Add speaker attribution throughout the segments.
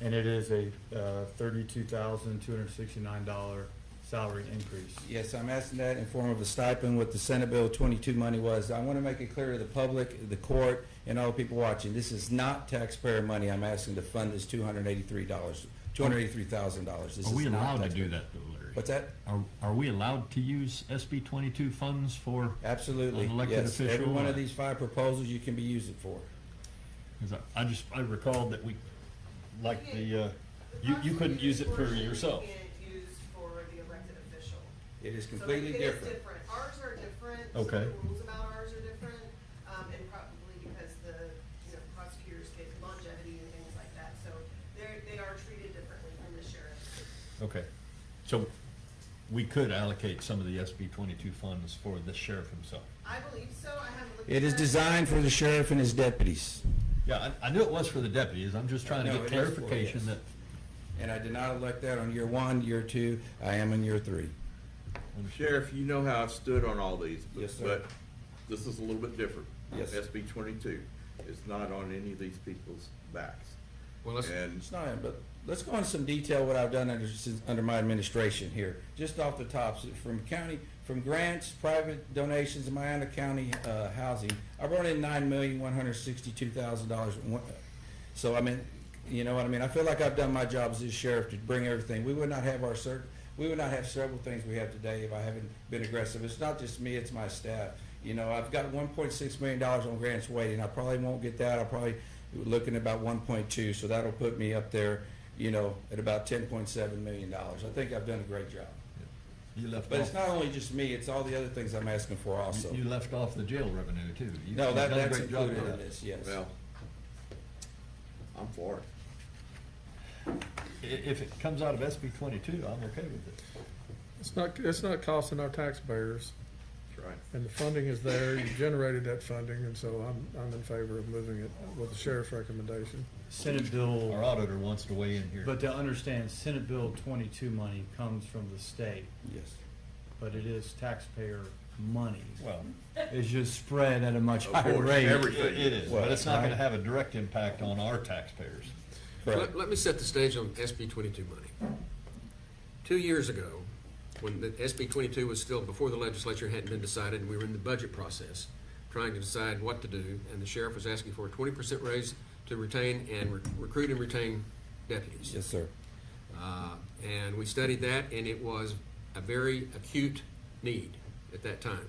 Speaker 1: And it is a uh, $32,269 salary increase.
Speaker 2: Yes, I'm asking that in form of a stipend, what the Senate Bill 22 money was. I want to make it clear to the public, the court, and all the people watching, this is not taxpayer money. I'm asking to fund this $283, $283,000. This
Speaker 3: Are we
Speaker 2: is not
Speaker 3: allowed to
Speaker 2: taxpayer-
Speaker 3: do that though, Larry?
Speaker 2: What's that?
Speaker 3: Are, are we allowed to use SB twenty-two funds for,
Speaker 2: Absolutely,
Speaker 3: An elected
Speaker 2: yes. Every
Speaker 3: official
Speaker 2: one
Speaker 3: or-
Speaker 2: of these five proposals you can be used it for.
Speaker 3: because I, I just, I recalled that we, like the, uh, you, you couldn't use it for yourself.
Speaker 4: Can't use for the elected official.
Speaker 2: It is
Speaker 4: So
Speaker 2: completely
Speaker 4: it is
Speaker 2: different.
Speaker 4: Ours are different. some of
Speaker 3: Okay.
Speaker 4: The rules about ours are different, um, and probably because the, you know, prosecutors get longevity and things like that, so they're, they are treated differently from the sheriff.
Speaker 3: Okay, so we could allocate some of the SB twenty-two funds for the sheriff himself.
Speaker 4: I believe so, I haven't looked.
Speaker 2: It
Speaker 4: at
Speaker 2: is
Speaker 4: that.
Speaker 2: designed for the sheriff and his deputies,
Speaker 3: Yeah, I, I knew it was for the deputies, I'm just trying to
Speaker 2: No,
Speaker 3: get
Speaker 2: it is for-
Speaker 3: clarification that,
Speaker 2: yes. and I did not elect that on year one, year two. I am in year three.
Speaker 5: Sheriff, you know how I've stood on all these. but-
Speaker 2: Yes, sir.
Speaker 5: But this is a little bit different.
Speaker 2: Yes.
Speaker 5: SB twenty-two is not on any of these people's backs.
Speaker 6: Well, let's,
Speaker 5: And
Speaker 2: It's not, but let's go into some detail what I've done under, since, under my administration here. Just off the tops, from county, from grants, private donations, Miami County, uh, housing, I brought in nine million, one hundred sixty-two thousand dollars. So I mean, you know what I mean? I feel like I've done my job as this sheriff to bring everything. We would not have our cert, we would not have several things we have today if I haven't been aggressive. It's not just me, it's my staff. You know, I've got one point six million dollars on grants waiting. I probably won't get that. I'll probably looking at about one point two, so that'll put me up there, you know, at about ten point seven million dollars. I think I've done a great job.
Speaker 3: you left
Speaker 2: But it's
Speaker 3: off,
Speaker 2: not only just me, it's all the other things I'm asking for also.
Speaker 3: you left off the jail revenue too. You-
Speaker 2: No,
Speaker 3: you've
Speaker 2: that,
Speaker 3: done a
Speaker 2: that's
Speaker 3: great job
Speaker 2: included
Speaker 3: with
Speaker 2: in
Speaker 3: that.
Speaker 2: this, yes.
Speaker 5: Well, I'm for it.
Speaker 3: I- If it comes out of SB twenty-two, I'm okay with it.
Speaker 6: it's not, it's not costing our taxpayers,
Speaker 5: That's right.
Speaker 6: and the funding is there, you generated that funding, and so I'm, I'm in favor of moving it with the sheriff's recommendation.
Speaker 1: Senate
Speaker 3: Our
Speaker 1: Bill,
Speaker 3: auditor wants to weigh in here.
Speaker 1: but to understand, Senate Bill 22 money comes from the state,
Speaker 2: Yes.
Speaker 1: but it is taxpayer money.
Speaker 3: Well,
Speaker 1: It's just spread at a much
Speaker 5: Of
Speaker 1: higher
Speaker 5: course,
Speaker 1: rate.
Speaker 3: it
Speaker 5: everything.
Speaker 3: it is, but it's not
Speaker 1: Right.
Speaker 3: gonna have a direct impact on our taxpayers.
Speaker 2: Correct.
Speaker 7: Let, let me set the stage on SB 22 money. Two years ago, when the SB 22 was still before the legislature hadn't been decided, and we were in the budget process trying to decide what to do, and the sheriff was asking for a 20% raise to retain and re- recruit and retain deputies.
Speaker 2: Yes, sir.
Speaker 7: Uh, And we studied that, and it was a very acute need at that time.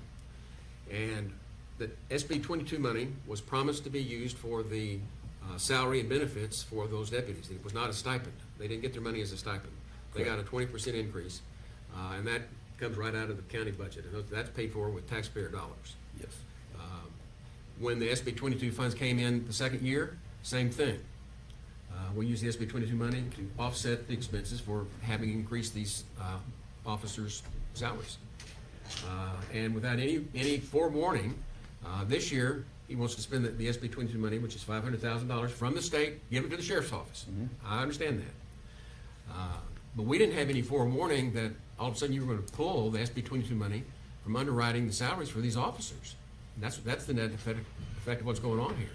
Speaker 7: And the SB 22 money was promised to be used for the uh, salary and benefits for those deputies. It was not a stipend. They didn't get their money as a stipend. They got a 20% increase, uh, and that comes right out of the county budget. And that's paid for with taxpayer dollars.
Speaker 2: Yes.
Speaker 7: Um, When the SB 22 funds came in the second year, same thing. Uh, We use the SB 22 money to offset the expenses for having increased these uh, officers' salaries. Uh, And without any, any forewarning, uh, this year, he wants to spend the- the SB 22 money, which is $500,000 from the state, give it to the sheriff's office. I understand that. Uh, But we didn't have any forewarning that all of a sudden you were going to pull the SB 22 money from underwriting the salaries for these officers. And That's, that's the net effect effect of what's going on here.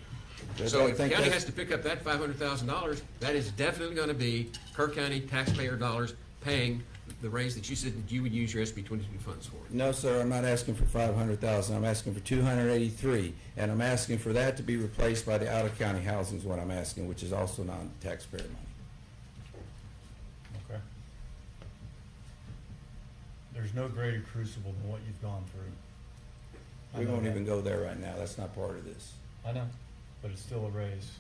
Speaker 2: Yes,
Speaker 7: So
Speaker 2: I
Speaker 7: if the
Speaker 2: think
Speaker 7: county
Speaker 2: that's-
Speaker 7: has to pick up that $500,000, that is definitely going to be Kerr County taxpayer dollars paying the raise that you said that you would use your SB 22 funds for.
Speaker 2: No, sir, I'm not asking for five hundred thousand, I'm asking for two hundred eighty-three, and I'm asking for that to be replaced by the out-of-county housing is what I'm asking, which is also non-taxpayer money.
Speaker 1: Okay. There's no greater crucible than what you've gone through. I
Speaker 2: We
Speaker 1: know
Speaker 2: won't
Speaker 1: that.
Speaker 2: even go there right now, that's not part of this.
Speaker 1: I know, but it's still a raise.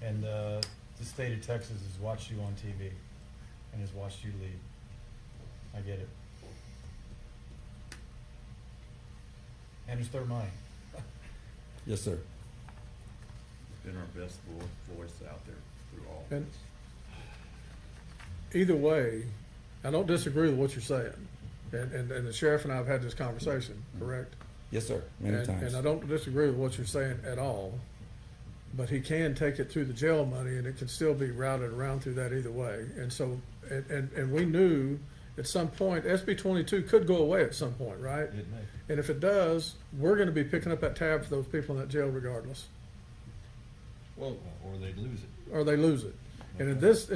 Speaker 1: And uh, the state of Texas has watched you on TV and has watched you lead. I get it. And it's their money.
Speaker 2: Yes, sir.
Speaker 5: Been our best vo- voice out there through all
Speaker 6: And
Speaker 5: this.
Speaker 6: either way, I don't disagree with what you're saying, and, and, and the sheriff and I have had this conversation, correct?
Speaker 2: Yes, sir, many
Speaker 6: And, and I
Speaker 2: times.
Speaker 6: don't disagree with what you're saying at all, but he can take it through the jail money and it can still be routed around through that either way. And so, and, and, and we knew at some point, SB twenty-two could go away at some point, right?
Speaker 3: It may.
Speaker 6: And if it does, we're gonna be picking up that tab for those people in that jail regardless,
Speaker 3: Well, or they'd lose it.
Speaker 6: or they lose it. And in this,